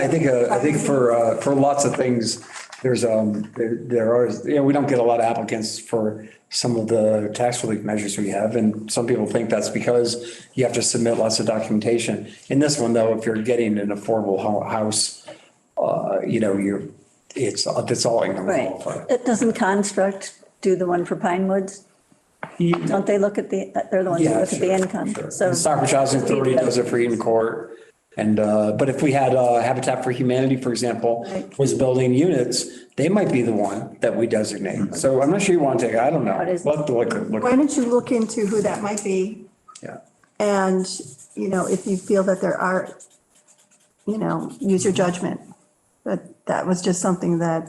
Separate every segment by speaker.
Speaker 1: I think, uh, I think for, uh, for lots of things, there's, um, there there are, you know, we don't get a lot of applicants for some of the tax relief measures we have, and some people think that's because you have to submit lots of documentation. In this one, though, if you're getting an affordable ho- house, uh, you know, you're, it's, that's all income
Speaker 2: Right.
Speaker 1: qualified.
Speaker 2: It doesn't construct do the one for Pine Woods? Don't they look at the, they're the ones that
Speaker 1: Yeah,
Speaker 2: look at the
Speaker 1: sure,
Speaker 2: income,
Speaker 1: sure.
Speaker 2: so.
Speaker 1: And Stockbridge Housing Authority does it for Eden Court. And, uh, but if we had uh, Habitat for Humanity, for example,
Speaker 2: Right.
Speaker 1: was building units, they might be the one that we designate. So I'm not sure you want to take, it. I don't know.
Speaker 2: Mm-hmm. What is-
Speaker 1: We'll have to look,
Speaker 3: Why
Speaker 1: look,
Speaker 3: don't you look into who that might be?
Speaker 1: yeah.
Speaker 3: And, you know, if you feel that there are, you know, use your judgment. But that was just something that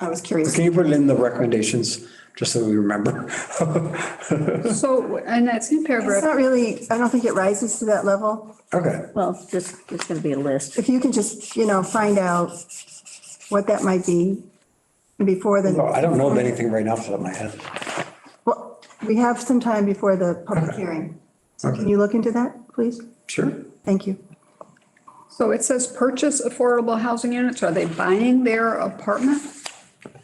Speaker 3: I was curious.
Speaker 1: Can you put it in the recommendations, just so we remember?
Speaker 4: So, and that same
Speaker 3: It's
Speaker 4: paragraph,
Speaker 3: not really, I don't think it rises to that level.
Speaker 1: Okay.
Speaker 2: Well, just, it's going to be a list.
Speaker 3: If you can just, you know, find out what that might be before
Speaker 1: No,
Speaker 3: the,
Speaker 1: I don't know of anything right now off the top of my head.
Speaker 3: well, we have some time before the public hearing. So can you look into that, please?
Speaker 1: Sure.
Speaker 3: Thank you.
Speaker 4: so it says purchase affordable housing units. Are they buying their apartment?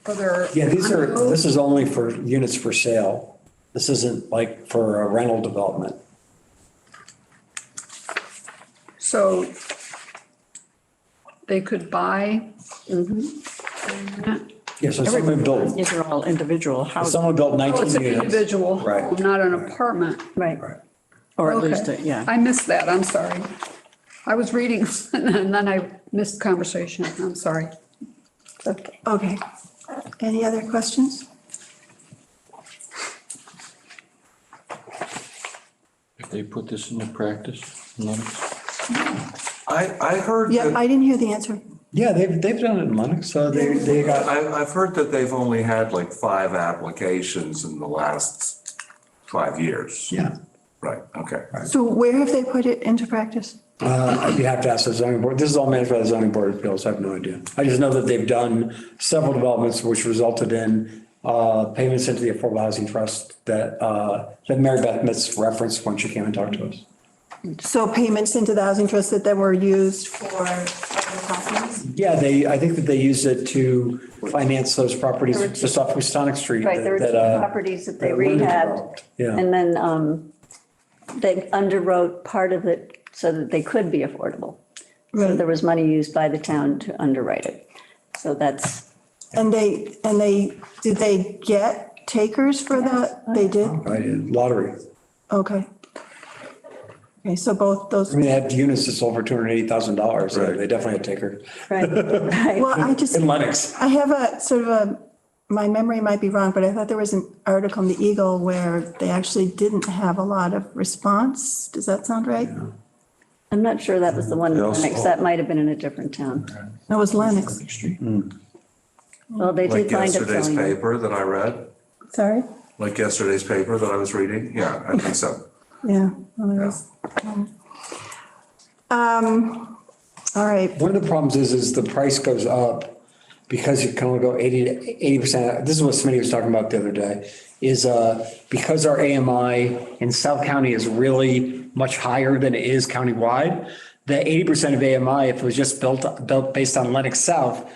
Speaker 4: Or their?
Speaker 1: Yeah, these are,
Speaker 2: Oh.
Speaker 4: condo?
Speaker 1: this is only for units for sale. This isn't like for a rental development.
Speaker 4: So they could buy. Oh,
Speaker 1: Yeah, so someone built,
Speaker 5: These are all individual houses,
Speaker 1: someone built
Speaker 4: Oh, it's
Speaker 1: 19
Speaker 4: an
Speaker 1: units.
Speaker 4: individual,
Speaker 1: Right.
Speaker 4: home, not an apartment.
Speaker 2: Right.
Speaker 1: Right.
Speaker 5: or at
Speaker 4: Okay.
Speaker 5: least, uh, yeah.
Speaker 4: I missed that, I'm sorry. I was reading and then I missed conversation, I'm sorry.
Speaker 2: Okay.
Speaker 3: Okay. Any other questions?
Speaker 6: If they put this into practice, none.
Speaker 7: I, I heard
Speaker 3: Yeah,
Speaker 7: that,
Speaker 3: I didn't hear the answer.
Speaker 1: Yeah, they've, they've done it in Lennox, so they, they got,
Speaker 7: I, I've heard that they've only had like five applications in the last five years.
Speaker 1: yeah.
Speaker 7: Right, okay.
Speaker 3: So where have they put it into practice?
Speaker 1: Uh, you have to ask the zoning board. This is all managed by the zoning board of appeals. I have no idea. I just know that they've done several developments which resulted in, uh, payments into the Affordable Housing Trust that, uh, that Mary Beth Mitz referenced when she came and talked to us.
Speaker 3: So payments into the housing trust that then were used for other properties?
Speaker 1: Yeah, they, I think that they used it to finance those properties just off Houstonic Street.
Speaker 2: Right, there were two
Speaker 1: that, uh,
Speaker 2: properties that they
Speaker 1: that Linda
Speaker 2: rehabbed.
Speaker 1: developed. Yeah,
Speaker 2: And then um, they underwrote part of it so that they could be affordable. So
Speaker 3: Right.
Speaker 2: there was money used by the town to underwrite it. So that's,
Speaker 3: And they, and they, did they get takers for that? They did?
Speaker 1: right, lottery.
Speaker 3: Okay. Okay, so both those,
Speaker 1: I mean, they had units that sold for $280,000. so They definitely had taker.
Speaker 2: right, right.
Speaker 3: well, I just,
Speaker 1: In Lennox.
Speaker 3: I have a sort of a, my memory might be wrong, but I thought there was an article in the Eagle where they actually didn't have a lot of response. Does that sound right?
Speaker 2: I'm not sure that was the one, in
Speaker 7: also-
Speaker 2: Lenox. that might have been in a different town.
Speaker 3: That was Lennox.
Speaker 2: Well, they
Speaker 7: Like
Speaker 2: did wind up
Speaker 7: yesterday's
Speaker 2: selling it.
Speaker 7: paper that I read,
Speaker 3: Sorry?
Speaker 7: like yesterday's paper that I was reading. Yeah, I think so.
Speaker 3: Yeah. well, there was, um, um, All right.
Speaker 1: One of the problems is, is the price goes up because you can only go 80 to 80 percent. This is what Smitty was talking about the other day, is uh, because our AMI in South County is really much higher than it is countywide, the 80 percent of AMI, if it was just built, built based on Lennox South,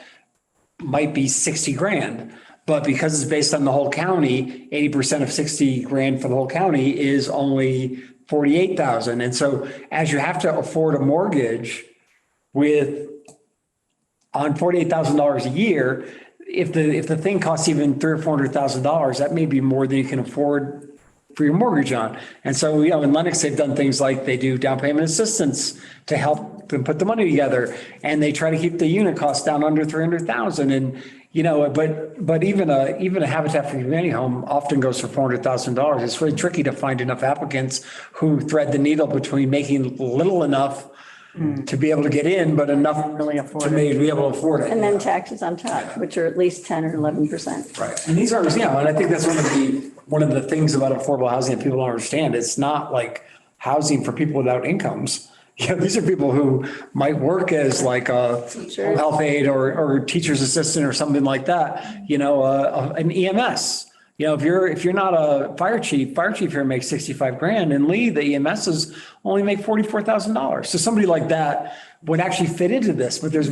Speaker 1: might be 60 grand. But because it's based on the whole county, 80% of 60 grand for the whole county is only 48,000. And so as you have to afford a mortgage with on $48,000 a year, if the, if the thing costs even three or $400,000, that may be more than you can afford for your mortgage on. And so, you know, in Lennox, they've done things like they do down payment assistance to help them put the money together. And they try to keep the unit cost down under 300,000 and, you know, but, but even a, even a Habitat for Humanity home often goes for $400,000. It's really tricky to find enough applicants who thread the needle between making little enough Hmm. to be able to get in, but enough to be be able to afford it.
Speaker 2: And then taxes on top, which are at least 10 or 11%.
Speaker 1: Right. And these are, yeah, and I think that's one of the, one of the things about affordable housing that people don't understand. It's not like housing for people without incomes. You know, these are people who might work as like a home health aide or, or teacher's assistant or something like that, you know, uh, an EMS. You know, if you're, if you're not a fire chief, fire chief here makes 65 grand and Lee, the E EMSs only make $44,000. So somebody like that would actually fit into this, but there's